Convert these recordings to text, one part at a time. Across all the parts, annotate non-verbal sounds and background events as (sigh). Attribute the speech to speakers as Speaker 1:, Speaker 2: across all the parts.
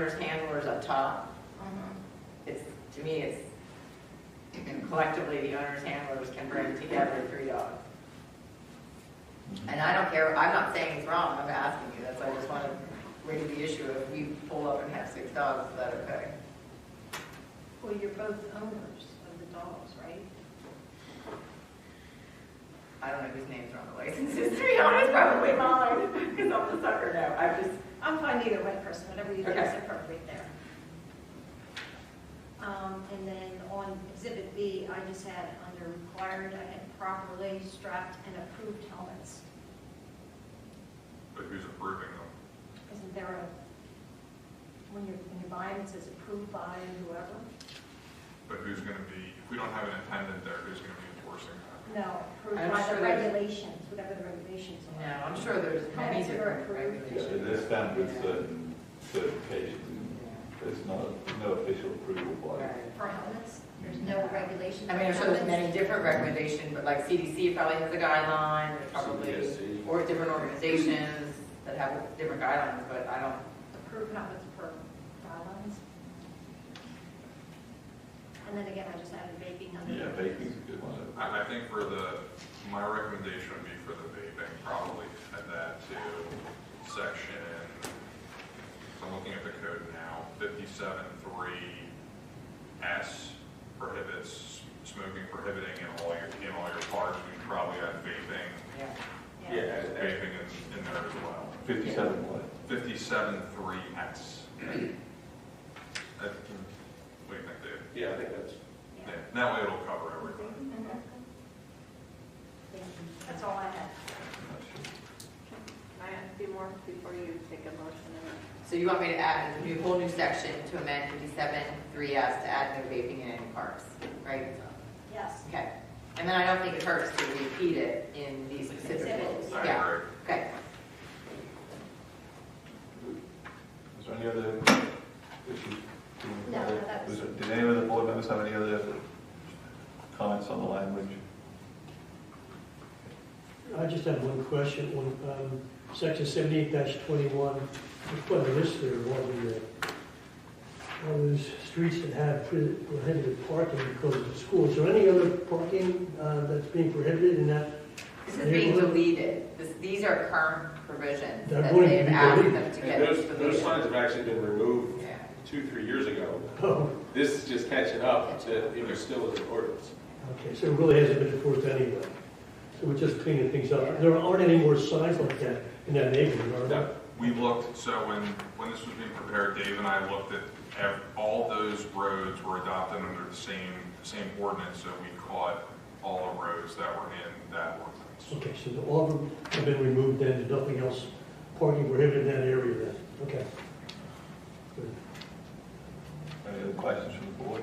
Speaker 1: There's handlers up top.
Speaker 2: Um,
Speaker 1: It's, to me, it's collectively, the owners, handlers can bring together three dogs. And I don't care, I'm not saying it's wrong, I'm asking you, that's why I just want to raise the issue of if we pull up and have six dogs, is that okay?
Speaker 2: Well, you're both owners of the dogs, right?
Speaker 1: I don't know whose names are on the licenses, to be honest, probably mine, because I'm the sucker now, I'm just,
Speaker 2: I'm fine either way, person, whatever you think is
Speaker 1: Okay.
Speaker 2: appropriate there. Um, and then on exhibit B, I just had under required, I had properly strapped and approved helmets.
Speaker 3: But who's approving them?
Speaker 2: Isn't there a, when you're, when you buy them, it says approved by whoever?
Speaker 3: But who's going to be, if we don't have an attendant there, who's going to be enforcing that?
Speaker 2: No,
Speaker 1: I'm
Speaker 2: approved by
Speaker 1: sure
Speaker 2: the
Speaker 1: there's-
Speaker 2: regulations, whatever the regulations
Speaker 1: no,
Speaker 2: are.
Speaker 1: I'm sure there's many
Speaker 2: Parents are
Speaker 1: different
Speaker 2: approved.
Speaker 4: Yeah,
Speaker 1: regulations.
Speaker 4: it is done with certain certifications.
Speaker 1: Yeah.
Speaker 4: There's not, no official approval by
Speaker 1: Right.
Speaker 2: For helmets, there's no regulation.
Speaker 1: I mean, I'm sure there's many different recommendations, but like CDC probably has a guideline, there's probably,
Speaker 4: CPSC.
Speaker 1: or different organizations that have different guidelines, but I don't,
Speaker 2: approved helmets per guidelines. And then again, I just added vaping under.
Speaker 4: Yeah, vaping's a good one.
Speaker 3: I, I think for the, my recommendation would be for the vaping, probably add that to section, I'm looking at the code now, fifty-seven three S prohibits smoking prohibiting in all your, in all your parks, we probably add vaping,
Speaker 1: yeah.
Speaker 2: Yeah.
Speaker 3: vaping in, in there as well.
Speaker 4: Fifty-seven what?
Speaker 3: Fifty-seven three S. What do you think, Dave?
Speaker 5: Yeah, I think that's.
Speaker 3: Yeah, that way it'll cover everything.
Speaker 2: That's all I had.
Speaker 6: Can I ask you more before you take a motion?
Speaker 1: So you want me to add a new, whole new section to amend fifty-seven three S to add no vaping in any parks, right?
Speaker 2: Yes.
Speaker 1: Okay, and then I don't think it hurts to repeat it in these specific rules,
Speaker 2: Exhibits.
Speaker 3: I
Speaker 1: yeah,
Speaker 3: agree.
Speaker 1: okay.
Speaker 4: Is there any other issues?
Speaker 2: No, that was-
Speaker 4: there- Did any of the board members have any other comments on the language?
Speaker 7: I just have one question, on um, section seventy-eight twenty-one, it's quite a list there, of all the, uh, all those streets that have pre- prohibited parking because of schools. Is there any other parking uh, that's being prohibited in that? (laughs)
Speaker 1: This is being deleted, this, these are current provisions
Speaker 7: They're
Speaker 1: that
Speaker 7: going to
Speaker 1: they've
Speaker 7: be
Speaker 1: asked them
Speaker 7: deleted.
Speaker 1: to get
Speaker 5: And those,
Speaker 1: deleted.
Speaker 5: those signs have actually been removed
Speaker 1: Yeah.
Speaker 5: two, three years ago.
Speaker 7: Oh,
Speaker 5: This is just catching up to, it was still in ordinance.
Speaker 7: okay, so it really hasn't been enforced anyway. So we're just cleaning things up. There aren't any more signs like that in that neighborhood, are there?
Speaker 5: No,
Speaker 3: We looked, so when, when this was being prepared, Dave and I looked at, ev- all those roads were adopted under the same, same ordinance, so we caught all the roads that were in that ordinance.
Speaker 7: Okay, so the- all of them have been removed then, and nothing else parking prohibited in that area then? Okay. Good.
Speaker 4: Any other questions from the board?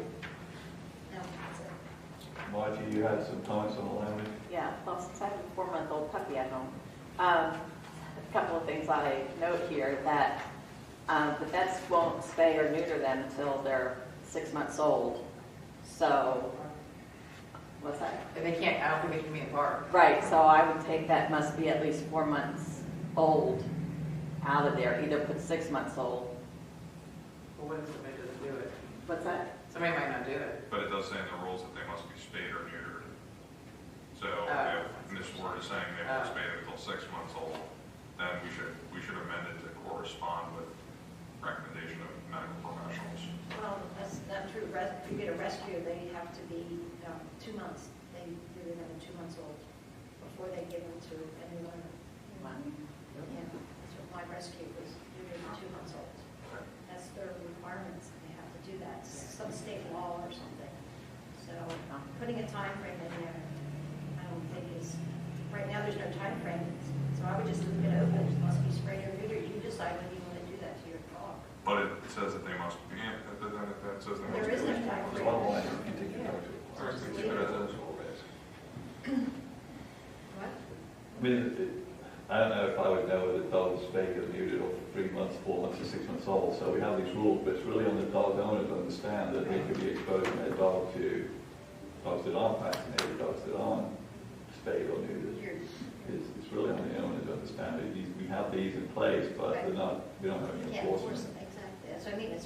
Speaker 2: No, that's it.
Speaker 4: Margie, you had some comments on the language?
Speaker 6: Yeah, well, since I have a four-month-old puppy at home, um, a couple of things on a note here, that um, the vets won't spay or neuter them until they're six months old. So, what's that?
Speaker 1: But they can't, I don't think it can be in park.
Speaker 6: Right, so I would take that must be at least four months old out of there, either put six months old.
Speaker 1: Well, what if somebody doesn't do it?
Speaker 6: What's that?
Speaker 1: Somebody might not do it.
Speaker 3: But it does say in the rules that they must be spayed or neutered. So
Speaker 1: Oh.
Speaker 3: if Ms. Ward is saying they were
Speaker 1: Oh.
Speaker 3: spayed until six months old, then we should, we should amend it to correspond with recommendation of medical professionals.
Speaker 2: Well, that's not true. Res- If you get a rescue, they have to be um, two months, they, they're another two months old before they give them to anyone.
Speaker 6: Wow.
Speaker 2: Yeah, that's what my rescue was, they were two months old. That's their requirements, they have to do that, some state law or something. So putting a time frame in there, I don't think is, right now, there's no time frame. So I would just leave it open, it must be sprayed or neutered, you decide whether you want to do that to your dog.
Speaker 3: But it says that they must, yeah, that, that, that- that says they must.
Speaker 2: There is
Speaker 3: be-
Speaker 2: no time
Speaker 4: There's one line, you can take your notes.
Speaker 3: All right, so keep it as is.
Speaker 2: What?
Speaker 4: I mean, it- it- I don't know if I would know whether the dog is spayed or neutered or three months, four months, or six months old. So we have these rules, but it's really on the dog owner to understand that they could be exposing their dog to dogs that aren't vaccinated, dogs that aren't spayed or neutered.
Speaker 2: Your
Speaker 4: It's, it's really on the owner to understand that these, we have these in place, but they're not, we don't have any
Speaker 2: Yeah, of course,
Speaker 4: enforcement.
Speaker 2: exactly. that's what I mean, it's